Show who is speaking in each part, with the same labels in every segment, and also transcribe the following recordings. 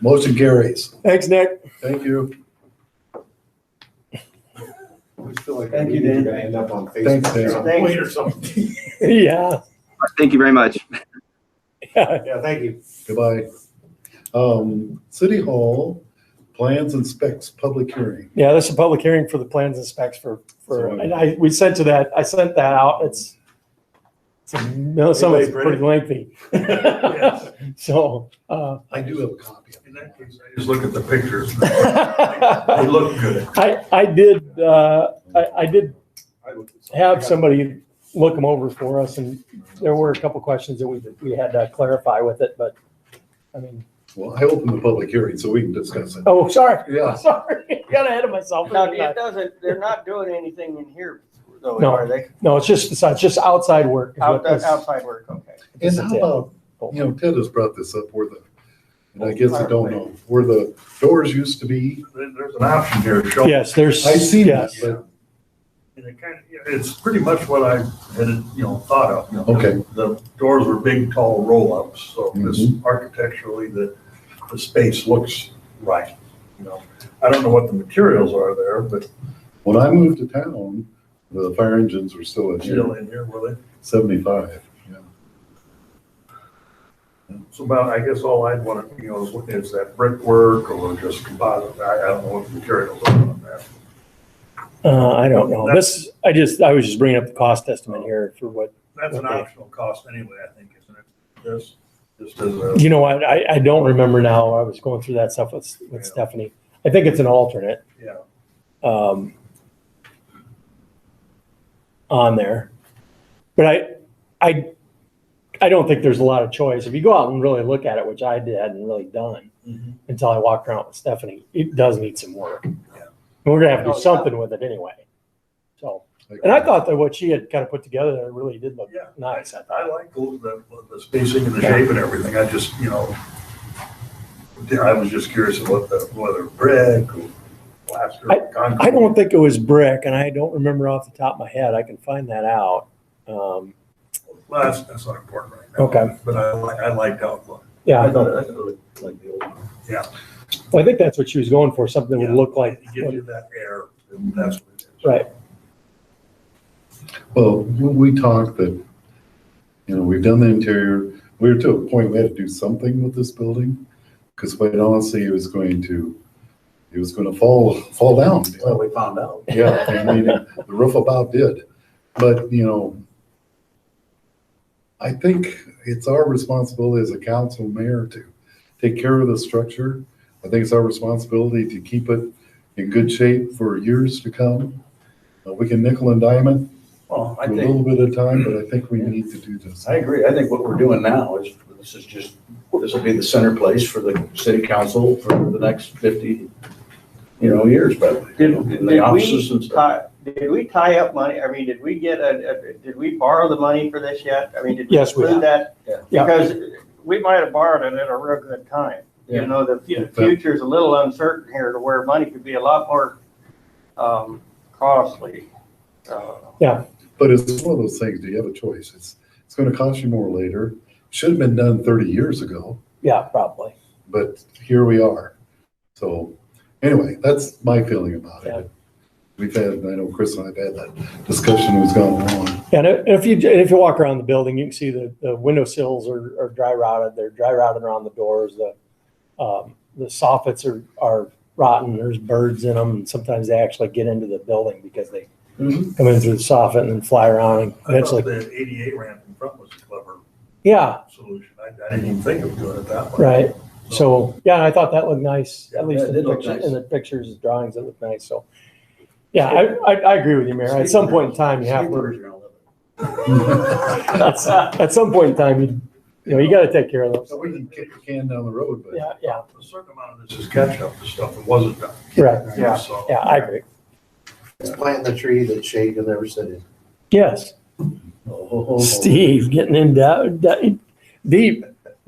Speaker 1: Motion carries.
Speaker 2: Thanks, Nick.
Speaker 1: Thank you.
Speaker 3: Thank you, Dan.
Speaker 4: End up on
Speaker 1: Thanks, Dan.
Speaker 4: Facebook.
Speaker 3: Thanks.
Speaker 4: Wait or something.
Speaker 2: Yeah.
Speaker 5: Thank you very much.
Speaker 4: Yeah, thank you.
Speaker 1: Goodbye. Um, City Hall, plans and specs, public hearing.
Speaker 2: Yeah, that's a public hearing for the plans and specs for, for,
Speaker 1: So-
Speaker 2: and I, we sent to that, I sent that out. It's, it's, a- no, some of it's pretty
Speaker 4: Anybody
Speaker 2: lengthy.
Speaker 4: Yes.
Speaker 2: So, uh,
Speaker 1: I do have a copy. of it.
Speaker 4: In that case, I Just look at the pictures. They
Speaker 2: I,
Speaker 4: look good.
Speaker 2: I did, uh, I, I did have somebody look them over for us and there were a couple questions that we, we had to clarify with it, but I mean,
Speaker 1: Well, I opened the public hearing so we can discuss it.
Speaker 2: oh, sorry,
Speaker 1: Yeah,
Speaker 2: sorry, got ahead of myself.
Speaker 3: No, it doesn't, they're not doing anything in here though,
Speaker 2: No.
Speaker 3: are they?
Speaker 2: No, it's just, it's not- it's just outside work. is what
Speaker 3: Outside,
Speaker 2: this-
Speaker 3: outside work, okay.
Speaker 1: and
Speaker 2: this is
Speaker 1: how
Speaker 2: it.
Speaker 1: about, you know, Ted has brought this up where the, and I guess I don't know, where the doors used to be.
Speaker 4: There- There's an option here, to show.
Speaker 2: Yes, there's.
Speaker 1: I see that,
Speaker 2: yes.
Speaker 1: but,
Speaker 4: And it kind of, it's pretty much what I had, you know, thought of, you know.
Speaker 1: Okay.
Speaker 4: The doors were big, tall roll-ups, so this
Speaker 2: Mm-hmm.
Speaker 4: architecturally, the, the space looks right, you know. I don't know what the materials are there, but
Speaker 1: when I moved to town, the fire engines were still in
Speaker 4: still
Speaker 1: here,
Speaker 4: in here, will they?
Speaker 1: seventy-five. yeah.
Speaker 4: So about, I guess all I'd want to, you know, is what is that brickwork or just composite, I, I don't know what the materials are on that.
Speaker 2: Uh, I don't know. This, I just, I was just bringing up the cost estimate here for what,
Speaker 4: That's an
Speaker 2: Okay.
Speaker 4: optional cost anyway, I think, isn't it? This, just as a,
Speaker 2: you know, what? I, I don't remember now. I was going through that stuff with, with Stephanie. I think it's an alternate,
Speaker 4: yeah,
Speaker 2: um, on there. But I, I, I don't think there's a lot of choice. If you go out and really look at it, which I did, hadn't really done
Speaker 4: Mhm.
Speaker 2: until I walked around with Stephanie, it does need some work. And
Speaker 4: Yeah.
Speaker 2: we're gonna have to
Speaker 3: Oh,
Speaker 2: do
Speaker 3: yeah.
Speaker 2: something with it anyway. So. And I thought that what she had kind of put together there really did look
Speaker 4: Yeah.
Speaker 2: nice. I thought.
Speaker 4: I like the, the- the spacing and the shape and everything, I just, you know, I was just curious about the, whether brick or plaster or concrete.
Speaker 2: I don't think it was brick, and I don't remember off the top of my head. I can find that out. Um,
Speaker 4: Well, that's, that's not important right now.
Speaker 2: Okay.
Speaker 4: But I like, I liked how it looked.
Speaker 2: yeah, I, thought,
Speaker 4: I looked like the old one. Yeah.
Speaker 2: well, I think that's what she was going for. Something that
Speaker 4: Yeah.
Speaker 2: would look like.
Speaker 4: It Gives you that air, and that's what it is.
Speaker 2: Right.
Speaker 1: Well, when we talked that, you know, we've done the interior, we were to a point, we had to do something with this building. Because quite honestly, it was going to, it was gonna fall, fall down.
Speaker 6: Well, we found out.
Speaker 1: Yeah, I mean, the roof about did, but, you know, I think it's our responsibility as a council mayor to take care of the structure. I think it's our responsibility to keep it in good shape for years to come. Uh, We can nickel and dime it,
Speaker 6: Well, I
Speaker 1: a
Speaker 6: think,
Speaker 1: little bit of time, but I think we need to do this.
Speaker 6: I agree. I think what we're doing now is, this is just, this will be the center place for the city council for the next fifty, you know, years, probably. you know,
Speaker 3: Did,
Speaker 6: in
Speaker 3: did
Speaker 6: the offices and
Speaker 3: we
Speaker 6: stuff.
Speaker 3: tie, did we tie up money? I mean, did we get a, a- did we borrow the money for this yet? I mean, did we
Speaker 2: Yes, we
Speaker 3: include that?
Speaker 6: Yeah.
Speaker 2: Yeah.
Speaker 3: Because we might have borrowed it at a real good time. You
Speaker 6: Yeah.
Speaker 3: know, the fu- future's a little uncertain here to where money could be a lot more, um, costly. Uh,
Speaker 1: But it's one of those things, do you have a choice? It's, it's gonna cost you more later. Should have been done thirty years ago,
Speaker 2: Yeah, probably.
Speaker 1: but here we are. So, anyway, that's my feeling about
Speaker 2: Yeah.
Speaker 1: it. We've had, I know Chris and I've had that discussion that's gone on.
Speaker 2: And if if you if you walk around the building, you can see the the window sills are, are dry rotted. They're dry rotted around the doors. The um, the soffits are are rotten. There's birds in them, and sometimes they actually get into the building because they
Speaker 6: Mhm.
Speaker 2: come in through the soffit and then fly around and
Speaker 4: I thought
Speaker 2: eventually.
Speaker 4: the ADA ramp in front was a clever
Speaker 2: Yeah,
Speaker 4: solution, I, I didn't even think of doing it that way.
Speaker 2: right. So, yeah, I thought that looked nice, at least
Speaker 6: Yeah, it
Speaker 2: in the
Speaker 6: did look
Speaker 2: pictures,
Speaker 6: nice.
Speaker 2: in the pictures, and drawings, it looked nice, so. Yeah, I, I, I agree with you, Mayor. At some point in time, you have, to. that's- at some point in time, you, you know, you gotta take care of those.
Speaker 1: So we can kick the can down the road, but.
Speaker 2: Yeah, yeah,
Speaker 4: A certain amount of this is catch up to stuff that wasn't done.
Speaker 2: Right.
Speaker 3: Yeah.
Speaker 4: So-
Speaker 2: yeah, I agree.
Speaker 6: Planting the tree that shade will never sit in.
Speaker 2: Yes,
Speaker 1: Oh,
Speaker 2: Steve, getting in doubt, deep,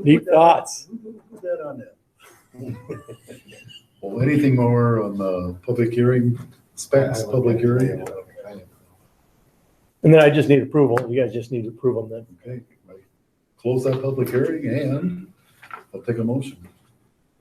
Speaker 2: deep thoughts.
Speaker 6: Put that on there.
Speaker 1: Well, anything more on the public hearing, specs, public hearing?
Speaker 2: And then I just need approval. You guys just need to approve them then.
Speaker 1: Okay, right. close that public hearing and I'll take a motion.